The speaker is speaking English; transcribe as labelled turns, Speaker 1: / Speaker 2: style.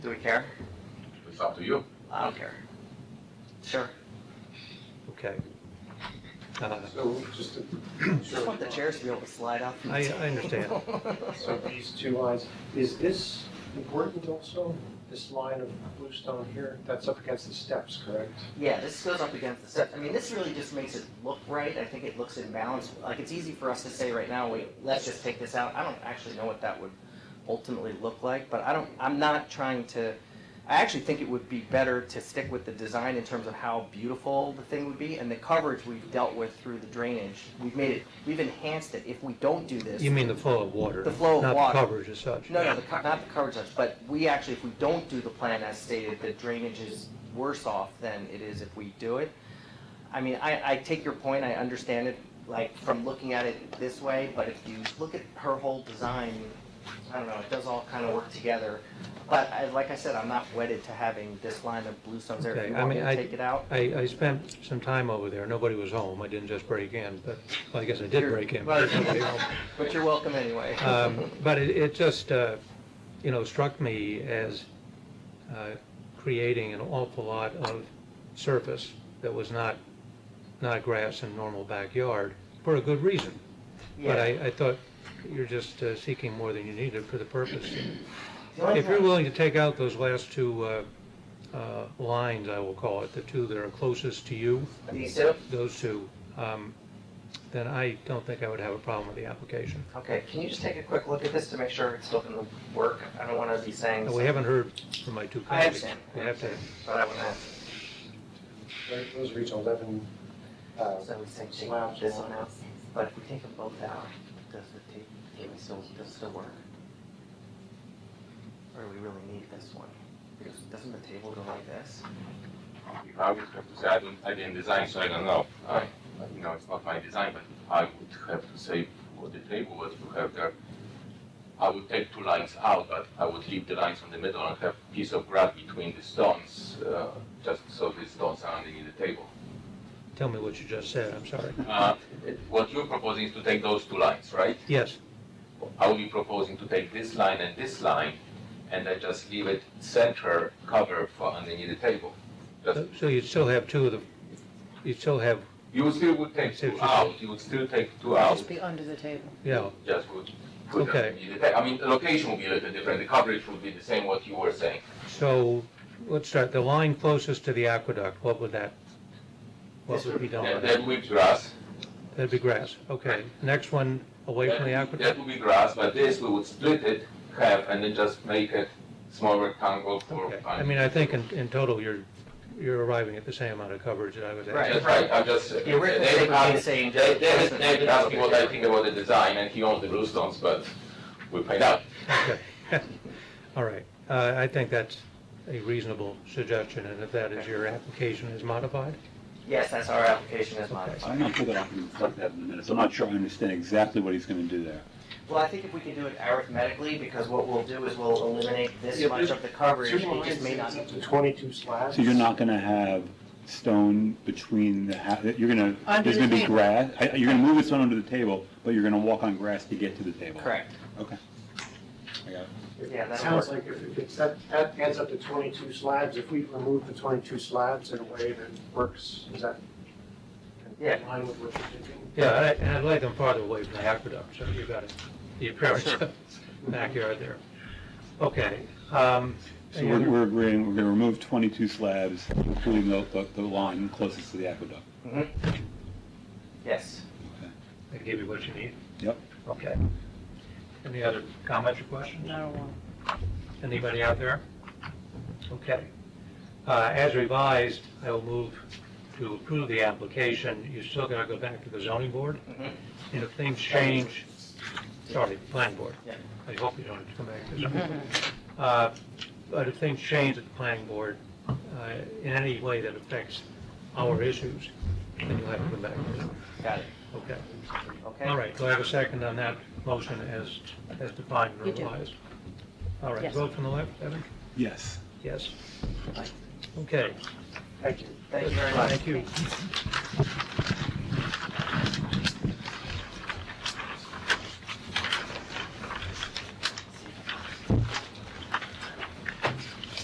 Speaker 1: Do we care?
Speaker 2: It's up to you.
Speaker 1: I don't care. Sure.
Speaker 3: Okay. Uh,
Speaker 4: So just
Speaker 1: I just want the
Speaker 4: to.
Speaker 1: chairs to be able to slide up.
Speaker 3: I, I understand.
Speaker 4: So these two lines, is this important also, this line of bluestone here? That's up against the steps, correct?
Speaker 1: Yeah, this goes up against the set. I mean, this really just makes it look right. I think it looks in balance. Like, it's easy for us to say right now, wait, let's just take this out. I don't actually know what that would ultimately look like, but I don't, I'm not trying to, I actually think it would be better to stick with the design in terms of how beautiful the thing would be, and the coverage we've dealt with through the drainage. We've made it, we've enhanced it. If we don't do this,
Speaker 3: You mean the flow of water?
Speaker 1: The flow of
Speaker 3: Not
Speaker 1: water.
Speaker 3: the coverage as such?
Speaker 1: No, no, the, co- not the coverage touch, but we actually, if we don't do the plan as stated, the drainage is worse off than it is if we do it. I mean, I, I take your point, I understand it, like, from looking at it this way, but if you look at her whole design, I don't know, it does all kind of work together. But I, like I said, I'm not wedded to having this line of bluestones there. If
Speaker 3: Okay,
Speaker 1: you
Speaker 3: I
Speaker 1: want me
Speaker 3: mean,
Speaker 1: to
Speaker 3: I-
Speaker 1: take it out,
Speaker 3: I, I spent some time over there. Nobody was home. I didn't just break in, but, well, I guess I did
Speaker 1: You're-
Speaker 3: break in.
Speaker 1: well,
Speaker 3: but there's nobody home.
Speaker 1: but you're welcome anyway.
Speaker 3: Um, But it, it just, uh, you know, struck me as uh, creating an awful lot of surface that was not, not grass in normal backyard, for a good reason. But
Speaker 1: Yeah.
Speaker 3: I, I thought you're just uh, seeking more than you needed for the purpose.
Speaker 1: The only
Speaker 3: If you're
Speaker 1: thing-
Speaker 3: willing to take out those last two uh, uh, lines, I will call it, the two that are closest to you,
Speaker 1: These two?
Speaker 3: those two, um, then I don't think I would have a problem with the application.
Speaker 1: Okay, can you just take a quick look at this to make sure it's still gonna work? I don't wanna be saying.
Speaker 3: And We haven't heard from my two
Speaker 1: I
Speaker 3: colleagues.
Speaker 1: understand.
Speaker 3: We have to
Speaker 1: But I wanna,
Speaker 4: Right, Those are each 11, uh,
Speaker 1: so we say take this one out, but if we take them both out, does it take, it still, does it still work? Or do we really need this one? Because Doesn't the table go like this?
Speaker 2: I would have to say, I don't, I didn't design, so I don't know. I, you know, it's not my design, but I would have to say what the table was to have there. I would take two lines out, but I would leave the lines on the middle and have piece of grass between the stones, uh, just so the stones are underneath the table.
Speaker 3: tell me what you just said, I'm sorry.
Speaker 2: Uh, it- what you're proposing is to take those two lines, right?
Speaker 3: Yes,
Speaker 2: I would be proposing to take this line and this line, and then just leave it center cover for underneath the table. Just
Speaker 3: so so you'd still have two of the, you'd still have,
Speaker 2: You still would take two out, you would still take two out,
Speaker 5: Just be under the table.
Speaker 3: you know,
Speaker 2: just would put them
Speaker 3: Okay.
Speaker 2: in the ta- I mean, the location would be a little different, the coverage would be the same what you were saying.
Speaker 3: so let's start, the line closest to the aqueduct, what would that, what
Speaker 1: This
Speaker 3: would be done
Speaker 2: That
Speaker 3: with
Speaker 2: that
Speaker 3: that?
Speaker 2: would be grass.
Speaker 3: That'd be grass, okay. Next one, away from the
Speaker 2: That-
Speaker 3: aqueduct?
Speaker 2: That would be grass, but this we would split it, half, and then just make it small rectangle for.
Speaker 3: Okay, I mean, I think in, in total, you're, you're arriving at the same amount of coverage that I was
Speaker 1: Right.
Speaker 3: at.
Speaker 2: That's right, I'm just.
Speaker 1: The original
Speaker 2: David
Speaker 1: thing we
Speaker 2: asked-
Speaker 1: saying-
Speaker 2: Da- David, David asked me what I think about the design, and he owns the bluestones, but we find out.
Speaker 3: Okay. All right, uh, I think that's a reasonable suggestion, and if that is your application is modified?
Speaker 1: Yes, that's our application as
Speaker 6: So I'm
Speaker 1: modified.
Speaker 6: gonna pull that up and reflect that in a minute, so I'm not sure I understand exactly what he's gonna do there.
Speaker 1: Well, I think if we can do it arithmetically, because what we'll do is we'll eliminate this
Speaker 4: Yeah,
Speaker 1: much
Speaker 4: but
Speaker 1: of the coverage,
Speaker 4: Two
Speaker 1: it just may not.
Speaker 4: lines, it's up to 22 slabs.
Speaker 6: So you're not gonna have stone between the, ha- you're gonna,
Speaker 5: Under
Speaker 6: there's
Speaker 5: the
Speaker 6: gonna be
Speaker 5: table.
Speaker 6: grass, I- you're gonna move the stone under the table, but you're gonna walk on grass to get to the table.
Speaker 1: Correct.
Speaker 6: Okay. I got it.
Speaker 1: Yeah,
Speaker 4: It
Speaker 1: that'll
Speaker 4: sounds like if it gets, that, that adds up to 22 slabs. If we remove the 22 slabs in a way that works, is that
Speaker 1: Yeah.
Speaker 4: in line with what you're thinking?
Speaker 3: Yeah, I- and I'd like them farther away from the aqueduct, so you've got the appearance of backyard there. Okay. um,
Speaker 6: So
Speaker 3: any
Speaker 6: we're,
Speaker 3: other-
Speaker 6: we're agreeing, we're gonna remove twenty-two slabs, including the, the, the line closest to the aqueduct.
Speaker 1: Mhm. Yes.
Speaker 3: I gave you what you need?
Speaker 6: Yep.
Speaker 3: Okay. Any other comments or questions?
Speaker 5: I don't want.
Speaker 3: Anybody out there? Okay. Uh, As revised, I will move to approve the application. You're still going to go back to the zoning board?
Speaker 1: Mhm.
Speaker 3: And if things change, sorry, planning board.
Speaker 1: Yeah. Mm-hmm.
Speaker 3: I hope you don't have to come back to that. Uh, But if things change at the planning board uh, in any way that affects our issues, then you'll have to come back. to it.
Speaker 1: Got it.
Speaker 3: Okay.
Speaker 1: Okay.
Speaker 3: All right, do I have a second on that motion as, as defined and
Speaker 5: You do.
Speaker 3: revised? All right,
Speaker 5: Yes.
Speaker 3: vote from the left, Evan?
Speaker 6: Yes.
Speaker 3: Yes. Okay.
Speaker 4: Thank you.
Speaker 1: Thank you very much.
Speaker 3: Thank you.